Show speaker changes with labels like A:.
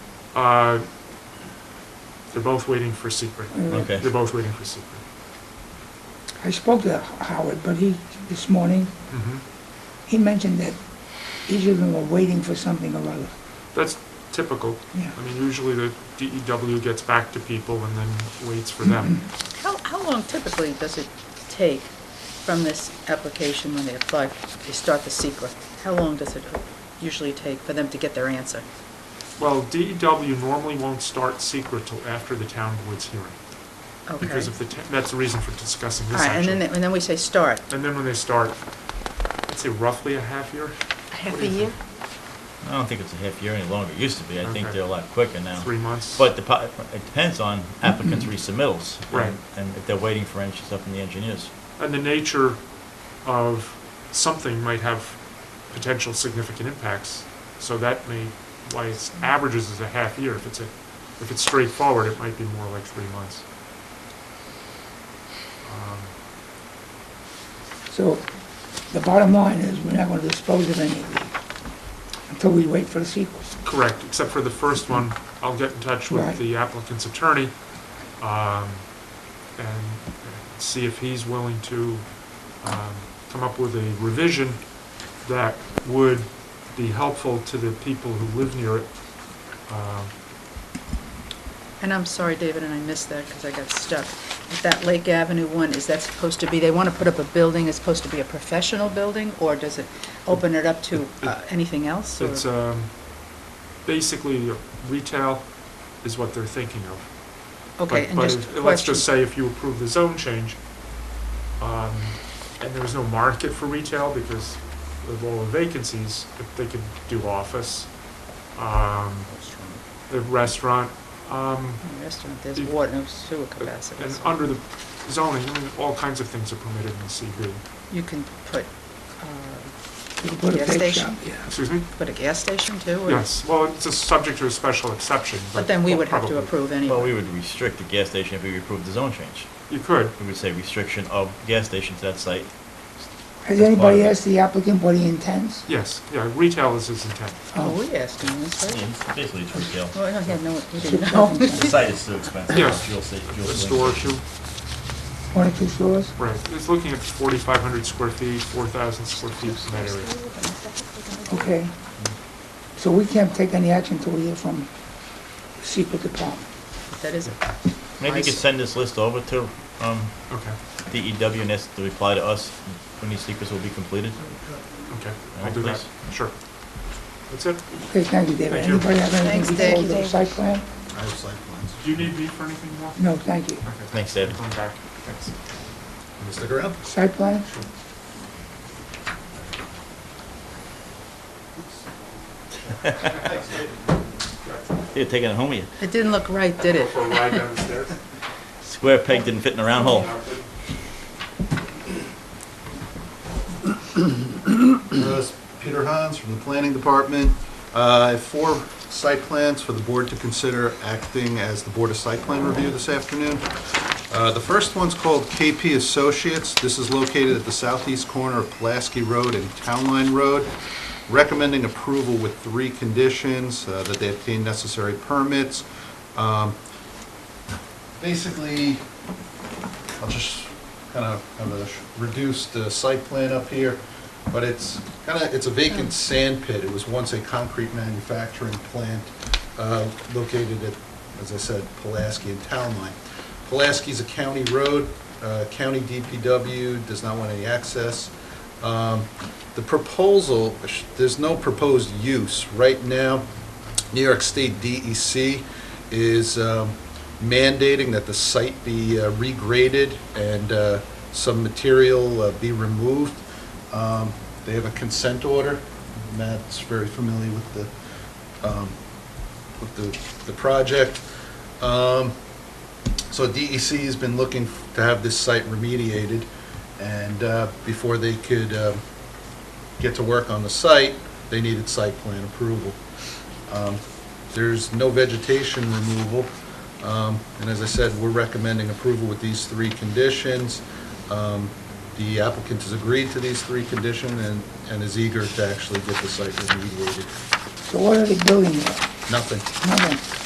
A: Uh, They're both waiting for secret.
B: Okay.
A: They're both waiting for secret.
C: I spoke to Howard, but he, this morning,
A: Mhm.
C: he mentioned that each of them are waiting for something or other.
A: That's typical.
C: Yeah.
A: I mean, usually the DEW gets back to people and then waits for them.
D: How, how long typically does it take from this application when they apply, they start the secret? How long does it usually take for them to get their answer? Mm-hmm.
A: Well, DEW normally won't start secret till after the town woods hearing.
D: Okay.
A: Because of the, ta- that's the reason for discussing
D: All
A: this
D: right, and then,
A: actually.
D: and then we say start.
A: And then when they start, I'd say roughly a half year,
D: Half
A: What do you think?
B: I don't think it's a half year any longer. It used to be. I think
A: Okay.
B: they're a lot quicker now.
A: three months.
B: But the, po- it depends on applicants' resubmittals.
A: Right.
B: And if they're waiting for any stuff from the engineers.
A: And the nature of something might have potential significant impacts. So that may, why it's averages is a half year. If it's a, if it's straightforward, it might be more like three months. Um,
C: So the bottom line is, we're not gonna dispose of any of these until we wait for the sequel.
A: Correct, except for the first one, I'll get in touch with
C: Right.
A: the applicant's attorney, um, and see if he's willing to, um, come up with a revision that would be helpful to the people who live near it. Um,
D: And I'm sorry, David, and I missed that because I got stuck. But That Lake Avenue one, is that supposed to be, they want to put up a building, it's supposed to be a professional building? Or does it open it up to uh, anything else? or-
A: It's, um, basically retail is what they're thinking of.
D: Okay,
A: But-
D: and
A: but
D: just
A: if- Let's
D: question.
A: just say if you approve the zone change, um, and there was no market for retail because of all the vacancies, if they could do office, um, the restaurant, um,
D: Oh, Restaurant, there's water, no sewer capacity.
A: and
D: so-
A: under the zoning, I mean, all kinds of things are permitted in the CB.
D: You can put, uh,
C: We can put a
D: Gas
C: bake
D: station.
C: shop, yeah.
A: Excuse me?
D: put a gas station too? or-
A: Yes, well, it's a subject to a special exception, but.
D: But then we would have to
A: probably.
D: approve
B: Well, we
D: anyway.
B: would restrict the gas station if we approved the zone change.
A: You could,
B: We would say restriction of gas station to that site.
C: Has
B: That's part
C: anybody
B: of it.
C: asked the applicant what he intends?
A: yes, yeah, retail is his intent.
D: Oh, we asked him this,
B: Yeah,
D: right?
B: it's- Basically, it's retail.
D: Well, I don't have no, we didn't know.
C: One
B: The site is too expensive.
A: Yeah.
B: Fuel sta- fuel
A: A
B: station.
A: store, too.
C: or two stores?
A: Right, it's looking at 4,500 square feet, 4,000 square feet in that area.
C: Okay. So we can't take any action until we hear from the secret department.
D: That is,
B: Maybe you could send this list over to um,
A: Okay,
B: DEW and ask to reply to us when these secrets will be completed.
A: okay, I'll
B: Alright,
A: do that, sure. That's it.
C: Okay, thank you, David.
A: Thank you.
C: Anybody have
D: Thanks,
C: anything
D: Dave.
C: before the site plan?
E: I have site plans.
A: Do you need me for anything more?
C: No, thank you.
A: Okay.
B: Thanks, David.
A: Come back, thanks.
E: Can you Stick around.
C: Site plan?
B: You're taking it home with you.
D: it didn't look right, did it?
A: For a ride down the stairs?
B: Square peg didn't fit in a round hole.
E: Uh, Peter Hans from the Planning Department. Uh, I have Four site plans for the board to consider acting as the Board of Site Plan Review this afternoon. Uh, The first one's called KP Associates. This is located at the southeast corner of Pulaski Road and Town Line Road. Recommending approval with three conditions, uh, that they obtain necessary permits. Um, Basically, I'll just kind of have a sh- reduced uh, site plan up here, but it's kind of, it's a vacant sand pit. It was once a concrete manufacturing plant uh, located at, as I said, Pulaski and Town Line. Pulaski's a county road, uh, county DPW does not want any access. Um, The proposal, sh- there's no proposed use. Right now, New York State DEC is um, mandating that the site be uh, regraded and uh, some material uh, be removed. Um, They have a consent order. Matt's very familiar with the, um, with the, the project. Um, So DEC has been looking f- to have this site remediated and uh, before they could um, get to work on the site, they needed site plan approval. Um, There's no vegetation removal, Um, and as I said, we're recommending approval with these three conditions. Um, The applicant has agreed to these three conditions and and is eager to actually get the site remediated.
C: So what are they building there?
E: Nothing.
C: Nothing.